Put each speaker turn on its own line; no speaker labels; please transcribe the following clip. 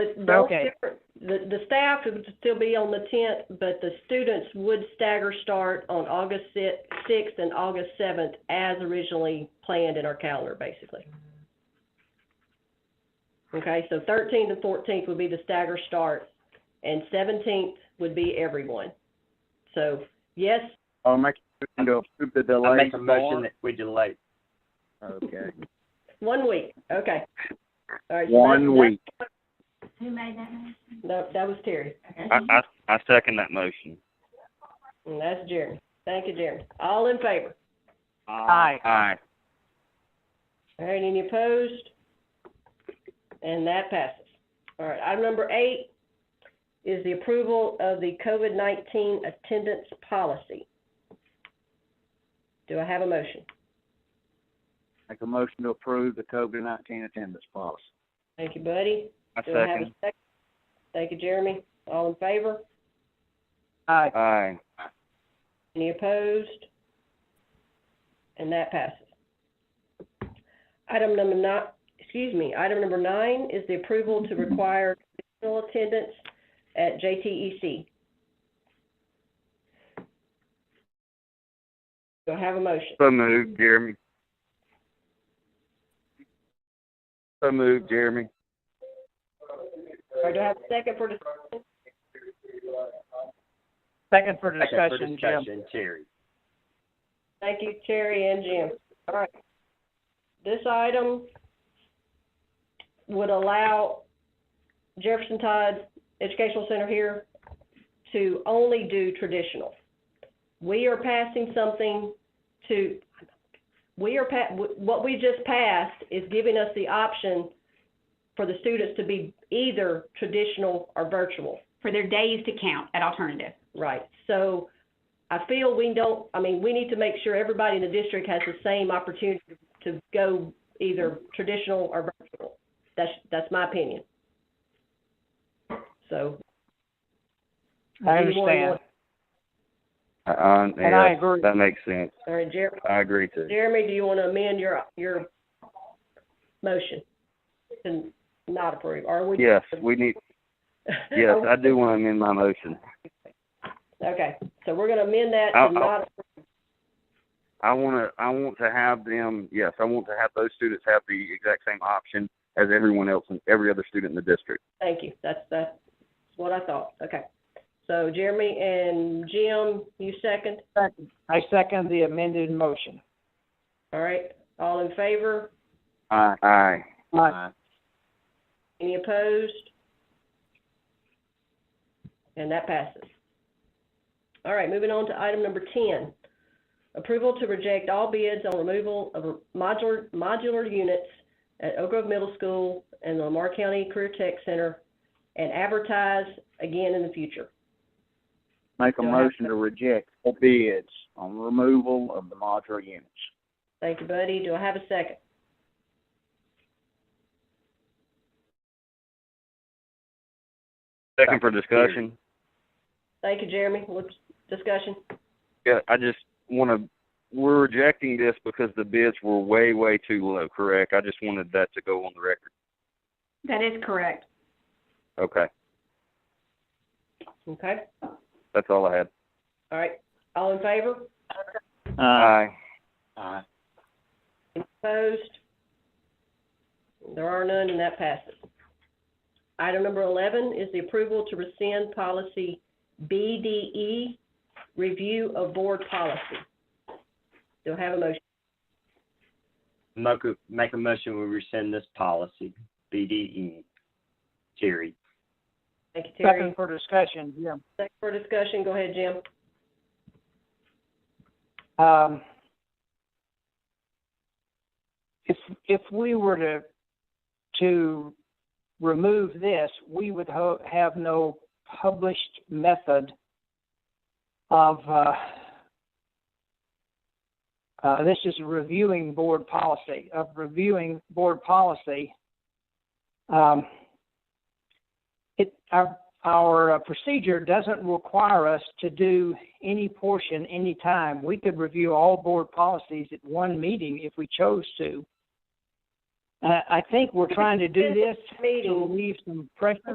But they'll
Okay.
still- The, the staff would still be on the tenth, but the students would stagger start on August sixth and August seventh as originally planned in our calendar, basically. Okay, so thirteenth and fourteenth would be the stagger start, and seventeenth would be everyone. So, yes,
Oh,
I'll make a motion to approve the
I
delay
make a motion that we delay.
for- Okay,
one week, okay. All right, so
one
that-
week.
Who made that motion?
That, that was Terry,
I, I, I second that motion.
and that's Jeremy. Thank you, Jeremy. All in favor?
Aye.
Aye.
All right, any opposed? And that passes. All right, item number eight is the approval of the COVID-19 attendance policy. Do I have a motion?
Make a motion to approve the COVID-19 attendance policy.
Thank you, Buddy.
I
Do I have a
second.
second? Thank you, Jeremy. All in favor?
Aye.
Aye.
Any opposed? And that passes. Item number nine, excuse me, item number nine is the approval to require additional attendance at E JTEC. Do I have a motion?
So moved, Jeremy. So moved, Jeremy.
Or do I have a second for, dis-
Second for
Second for
discussion, Jim.
discussion, Terry.
thank you, Terry and Jim. All right. This item would allow Jefferson Tide Educational Center here to only do traditional. We are passing something to, we are, pa- what we just passed is giving us the option for the students to be either traditional or virtual.
for their days to count at alternative.
Right, so I feel we don't, I mean, we need to make sure everybody in the district has the same opportunity to go either traditional or virtual. That's, that's my opinion. So.
I
If you want-
understand.
Uh, Uh,
And I
yeah,
agree.
that makes sense.
All right, Jeremy,
I agree too.
Jeremy, do you want to amend your, your motion to not approve, or we?
Yes, we need, yes, I do want to amend my motion.
Okay, so we're going to amend that
I'll-
to not,
I want to, I want to have them, yes, I want to have those students have the exact same option as everyone else and every other student in the district.
thank you, that's, that's what I thought, okay. So Jeremy and Jim, you second?
I second the amended motion.
All right, all in favor?
Aye. Aye.
Aye.
Any opposed? And that passes. All right, moving on to item number ten. Approval to reject all bids on removal of modular, modular units at Oak Grove Middle School and the Lamar County Career Tech Center and advertise again in the future.
Make a
Do I have
motion to reject all bids on removal of the modular units.
Thank you, Buddy. Do I have a second?
Second for discussion.
Thank you, Jeremy. What's discussion?
Yeah, I just want to, we're rejecting this because the bids were way, way too low, correct? I just wanted that to go on the record.
That is correct.
Okay,
Okay,
that's all I had.
all right. All in favor?
Uh,
Aye.
Aye.
Opposed? There are none, and that passes. Item number 11 is the approval to rescind policy BDE, review of board policy. Do I have a motion?
Make a, make a motion, we rescind this policy, BDE. Terry.
Thank you, Terry.
Second for discussion, Jim.
Second for discussion, go ahead, Jim.
Um, if, if we were to, to remove this, we would ho- have no published method of, uh, uh, this is reviewing board policy, of reviewing board policy. Um, it, our, our uh, procedure doesn't require us to do any portion anytime. We could review all board policies at one meeting if we chose to. Uh, I think we're trying to do this to
Meeting.
leave some pressure